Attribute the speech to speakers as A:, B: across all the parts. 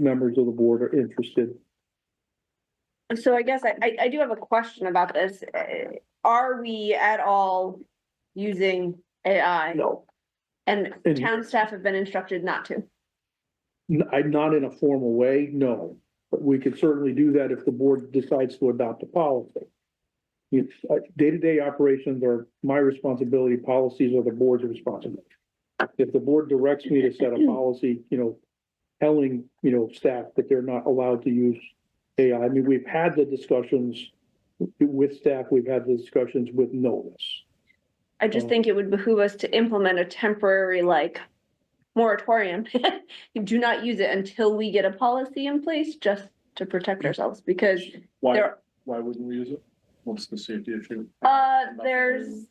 A: members of the board are interested.
B: So I guess I, I, I do have a question about this. Uh, Are we at all using AI?
A: No,
B: And
A: And-
B: town staff have been instructed not to.
A: n- I, not in a formal way, no, but we could certainly do that if the board decides to adopt a policy. It's, uh, day-to-day operations are my responsibility, policies are the board's responsibility. If the board directs me to set a policy, you know, telling, you know, staff that they're not allowed to use AI, I mean, we've had the discussions with staff, we've had the discussions with notice.
B: I just
A: Oh.
B: think it would behoove us to implement a temporary like moratorium. Do not use it until we get a policy in place just to protect ourselves because
C: Why,
B: there,
C: why wouldn't we use it? What's the safety issue?
B: uh, there's,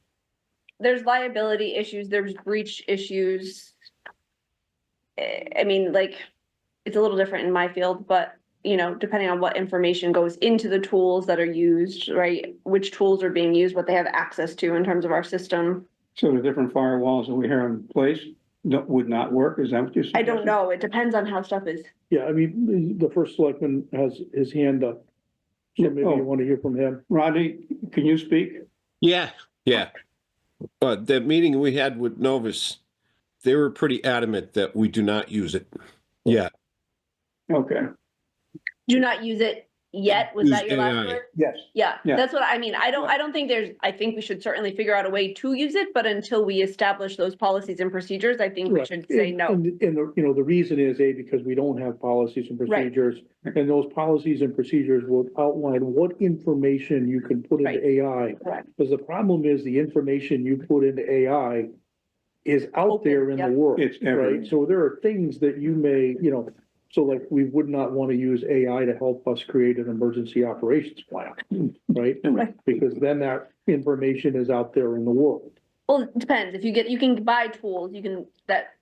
B: there's liability issues, there's breach issues. Eh, I mean, like, it's a little different in my field, but, you know, depending on what information goes into the tools that are used, right? Which tools are being used, what they have access to in terms of our system.
D: So the different firewalls that we have in place that would not work, is that what you're saying?
B: I don't know. It depends on how stuff is.
A: Yeah, I mean, the first selectman has his hand up. So
D: Yeah,
A: maybe
D: oh.
A: you want to hear from him.
D: Rodney, can you speak?
E: Yeah, yeah. But the meeting we had with Novus, they were pretty adamant that we do not use it. Yeah,
D: Okay,
B: Do not use it yet. Was that
E: Use
B: your last
E: AI.
B: word?
D: yes.
B: Yeah,
D: Yeah.
B: that's what I mean. I don't,
D: Yeah.
B: I don't think there's, I think we should certainly figure out a way to use it, but until we establish those policies and procedures, I think we
A: Right.
B: should say
A: And-
B: no.
A: And, and, the- you know, the reason is, A, because we don't have policies and
B: Right.
A: procedures. And those policies and procedures will outline what information you can put
B: Right.
A: into AI.
B: Correct.
A: Because the problem is the information you put into AI is out
B: Open,
A: there in the
B: yep.
A: world.
D: It's everywhere.
A: Right? So there are things that you may, you know, so like, we would not want to use AI to help us create an emergency operations plan, right?
B: Right.
A: Because then that information is out there in the world.
B: Well, it depends. If you get, you can buy tools, you can, that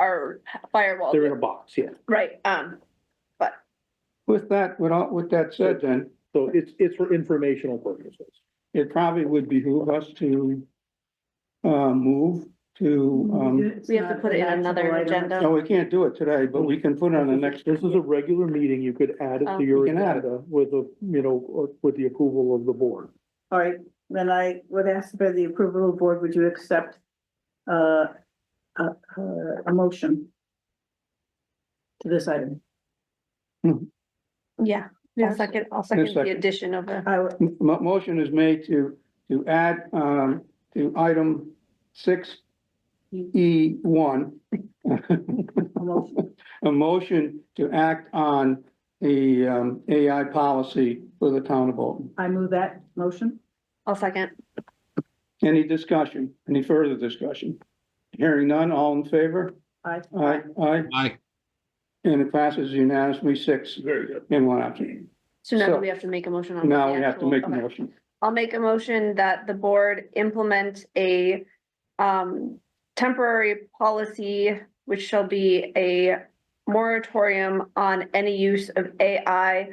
B: are firewall,
A: They're in a box, yeah.
B: right? Um,
D: With that, with all, with that said, then,
A: So it's, it's for informational purposes.
D: it probably would behoove us to uh, move to, um,
B: we have to put it in another
D: no,
B: agenda.
D: we can't do it today, but we can put it on the next, Uh,
A: This is a regular meeting. You could add it
B: Oh.
A: to your
D: You can add it.
A: agenda with a, you know, with the approval of the board.
F: All right, then I would ask for the approval of the board, would you accept uh, a, a- a motion to this item?
B: Yeah, I'll second, I'll second the
D: second.
B: addition of the,
F: I would,
D: mo- motion is made to, to add, um, to item six E one.
F: a motion,
D: a motion to act on the um, AI policy for the town of Bolton.
F: I move that motion.
B: I'll second.
D: Any discussion, any further discussion? Hearing none, all in favor?
F: Aye.
D: Aye, aye,
E: I,
D: and it passes unanimously, six
C: Very good.
D: in one absent.
B: So now do
D: So-
B: we have to make a motion on?
D: Now
B: the
D: we have to
B: actual-
D: make a
B: okay.
D: motion.
B: I'll make a motion that the board implement a um temporary policy, which shall be a moratorium on any use of AI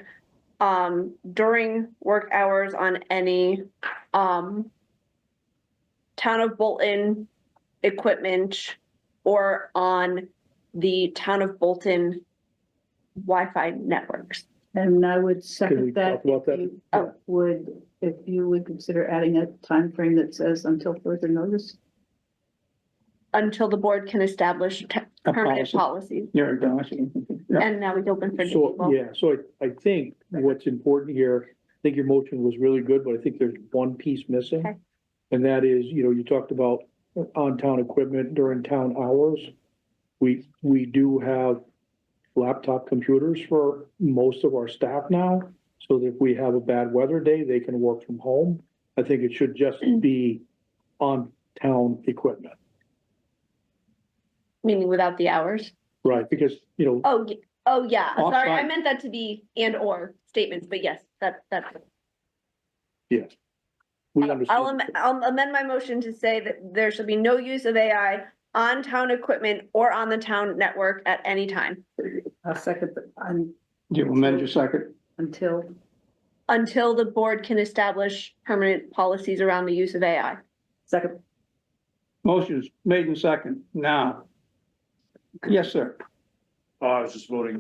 B: um during work hours on any um town of Bolton equipment or on the town of Bolton Wi-Fi networks.
F: And I would
A: Can we
F: second
A: talk
F: that.
A: about
F: if
A: that?
F: you
B: Oh.
F: Would, if you would consider adding a time frame that says until further notice?
B: Until the board can establish te-
D: A
B: permanent
D: policy.
B: policies.
D: There it goes. Yeah.
B: And now we open for new
A: So,
B: people.
A: yeah, so I, I think what's important here, I think your motion was really good, but I think there's one piece missing.
B: Okay.
A: And that is, you know, you talked about on-town equipment during town hours. We, we do have laptop computers for most of our staff now. So that if we have a bad weather day, they can work from home. I think it should just be on-town equipment,
B: Meaning without the hours?
A: right? Because, you know,
B: Oh, y- oh, yeah, sorry, I
D: Offsite.
B: meant that to be and or statements, but yes, that, that's.
A: yes. We
B: Oh, I'll,
A: understand.
B: am- I'll amend my motion to say that there shall be no use of AI on town equipment or on the town network at any time
F: A second, but un-
D: You amend your second.
F: until,
B: until the board can establish permanent policies around the use of AI.
F: second,
D: Motion is made in second, now. Yes, sir.
C: Uh, I was just voting